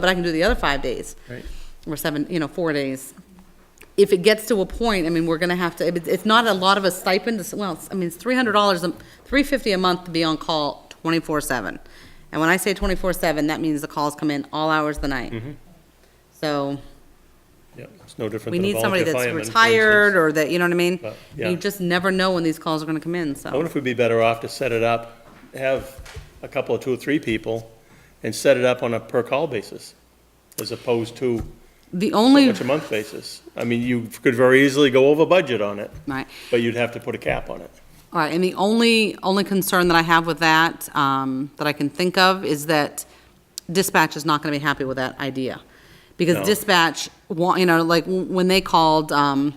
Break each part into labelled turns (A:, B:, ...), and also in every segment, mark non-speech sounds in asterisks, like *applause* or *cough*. A: but I can do the other five days.
B: Right.
A: Or seven, you know, four days. If it gets to a point, I mean, we're gonna have to, it- it's not a lot of a stipend, it's- well, it's- I mean, it's three hundred dollars, three fifty a month to be on call twenty-four seven. And when I say twenty-four seven, that means the calls come in all hours of the night.
B: Mm-hmm.
A: So,
B: Yeah, it's no different
A: we
B: than a
A: need somebody
B: volunteer
A: that's
B: fireman. for
A: retired,
B: instance.
A: or that, you know what I mean?
B: But, yeah.
A: You just never know when these calls are gonna come in,
B: I
A: so.
B: wonder if we'd be better off to set it up, have a couple of two or three people, and set it up on a per-call basis, as opposed to
A: The
B: so
A: only,
B: much a month basis. I mean, you could very easily go over budget on it,
A: right,
B: but you'd have to put a cap on it.
A: All right, and the only, only concern that I have with that, um, that I can think of, is that dispatch is not gonna be happy with that idea.
B: No.
A: Because dispatch, wa- you know, like, w- when they called, um,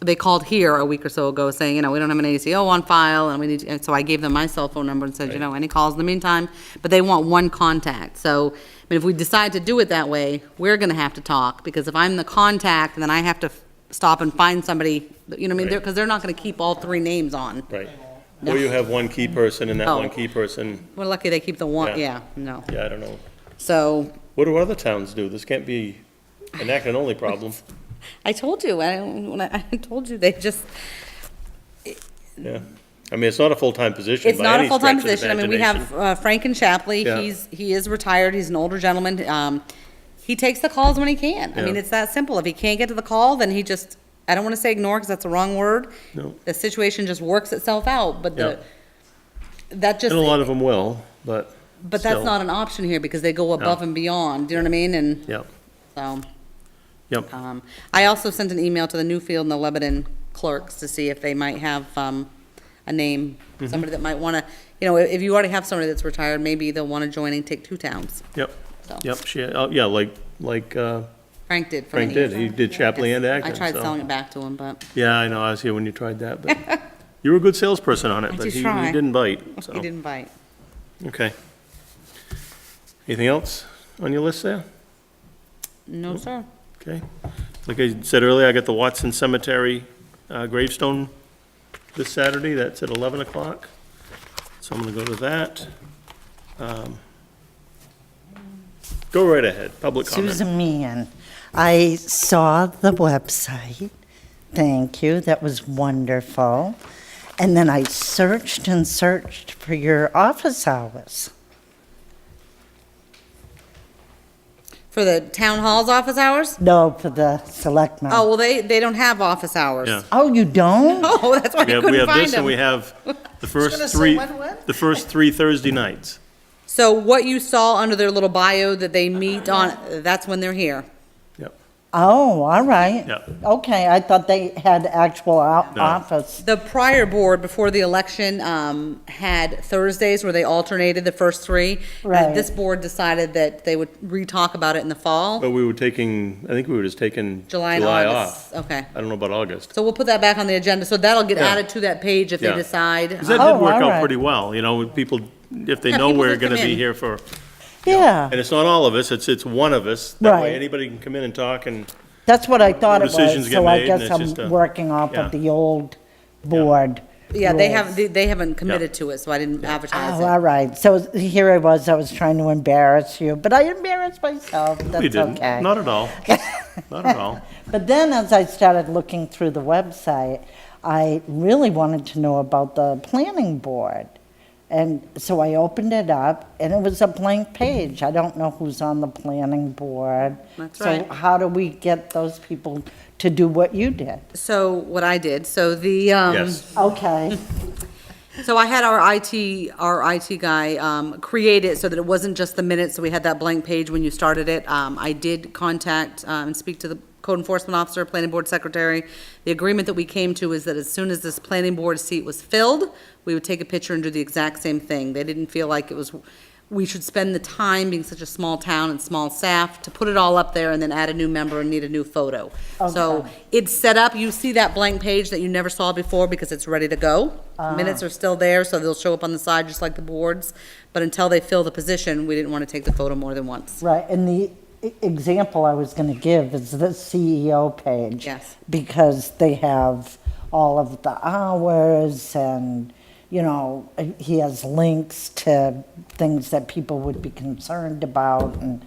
A: they called here a week or so ago saying, you know, we don't have an ACO on file, and we need, to- and so I gave them my cell phone number and said, you
B: Right.
A: know, any calls in the meantime, but they want one contact, so, I mean, if we decide to do it that way, we're gonna have to talk, because if I'm the contact, then I have to f- stop and find somebody, you know, what I mean, they're,
B: Right.
A: because they're not gonna keep all three names on.
B: Right. Or you have one key person, and that
A: No.
B: one key person,
A: We're lucky they keep the one,
B: Yeah.
A: yeah, no.
B: yeah, I don't know.
A: So,
B: What do other towns do? This can't be an Acton only problem.
A: I told you, I, when I *laughs* I told you, they just,
B: Yeah. I mean, it's not a full-time position
A: it's
B: by
A: not a
B: any stretch of
A: full-time
B: the
A: position. I mean, we
B: imagination.
A: have uh, Franken Shapley,
B: Yeah.
A: he's, he is retired, he's an older gentleman. Um, He takes the calls when he can. I mean,
B: Yeah.
A: it's that simple. If he can't get to the call, then he just, I don't want to say ignore, because that's the wrong word.
B: No.
A: The situation just works itself out, but the, that just,
B: And a lot of them will, but.
A: but that's
B: still.
A: not an option here, because they go above and beyond, you know what I mean? And
B: Yep,
A: so.
B: yep.
A: Um, I also sent an email to the Newfield and the Lebanon clerks to see if they might have, um, a name,
B: Mm-hmm.
A: somebody that might wanna, you know, if you already have somebody that's retired, maybe they'll wanna join and take two towns.
B: Yep,
A: So.
B: yep, she, oh, yeah, like, like uh,
A: Frank did. for
B: Frank
A: many
B: did,
A: years.
B: he did Chapley and
A: I
B: Acton,
A: tried
B: so-
A: selling it back to him, but
B: Yeah, I know, I was here when you tried
A: *laughs*
B: that, but you were a good salesperson on it,
A: I
B: but
A: did
B: he he
A: try.
B: didn't bite,
A: *laughs* he
B: so,
A: didn't bite.
B: okay. Anything else on your list there?
A: No, sir.
B: Okay. Like I said earlier, I got the Watson Cemetery uh, gravestone this Saturday, that's at 11 o'clock, so I'm gonna go to that. Um, Go right ahead, public
A: *laughs*
B: comment.
C: Susan Meehan. I saw the website. Thank you. That was wonderful. And then I searched and searched for your office hours.
A: For the town hall's office hours?
C: No, for the selectmen.
A: Oh, well, they, they don't have office hours.
B: Yeah.
C: Oh, you don't?
A: *laughs* Oh, that's why I
B: We have, we
A: couldn't
B: have
A: find
B: this and we
A: them. *laughs*
B: have the first three, the first three Thursday nights.
A: So what you saw under their little bio that they meet
B: Uh-huh.
A: on, that's when they're here.
B: Yep.
C: Oh, all right.
B: Yeah.
C: Okay, I thought they had actual o-
B: No.
C: office.
A: The prior board, before the election, um, had Thursdays where they alternated the first three.
C: Right.
A: And This board decided that they would re-talk about it in the fall,
B: But we were taking, I think we were just taking
A: July and
B: Oh, July off.
A: August. Okay,
B: I don't know about August.
A: so we'll put that back on the agenda, so that'll get
B: Yeah.
A: added to that page if they
B: Yeah.
A: decide.
B: 'Cause that
A: Um,
B: did
C: Oh,
B: work out
C: alright.
B: pretty well, you know, with people, if they
A: Yeah, *laughs*
B: know
A: people
B: we're
A: just come
B: gonna be
A: in.
B: here for,
C: Yeah,
B: and it's not all of us, it's, it's one of us. That way
C: Right.
B: anybody can come in and talk and,
C: that's what I thought it
B: Decisions
C: was.
B: get
C: So I
B: made and
C: guess
B: it's just a-
C: I'm working off
B: yeah.
C: of the old board.
A: Yeah, they
C: rules.
A: haven't, they- they haven't committed to it, so I didn't advertise
C: Oh,
A: it.
C: all right. So here I was, I was trying to embarrass you, but I embarrassed myself.
B: we
C: That's
B: didn't,
C: okay.
B: not at
C: *laughs*
B: all. Not at all.
C: But then as I started looking through the website, I really wanted to know about the planning board. And so I opened it up and it was a blank page. I don't know who's on the planning board.
A: That's
C: So
A: right.
C: how do we get those people to do what you did?
A: So what I did, so the, um.
B: Yes,
C: Okay,
A: So I had our IT, our IT guy um, create it so that it wasn't just the minutes, so we had that blank page when you started it. Um, I did contact um, and speak to the code enforcement officer, planning board secretary. The agreement that we came to is that as soon as this planning board seat was filled, we would take a picture and do the exact same thing. They didn't feel like it was, we should spend the time, being such a small town and small staff, to put it all up there and then add a new member and need a new photo. So
C: Okay.
A: it's set up, you see that blank page that you never saw before because it's ready to go. Minutes are still there, so they'll show up on the side just like the boards. But until they fill the position, we didn't want to take the photo more than once.
C: right. And the e- example I was going to give is the CEO page.
A: Yes.
C: because they have all of the hours and, you know, he has links to things that people would be concerned about and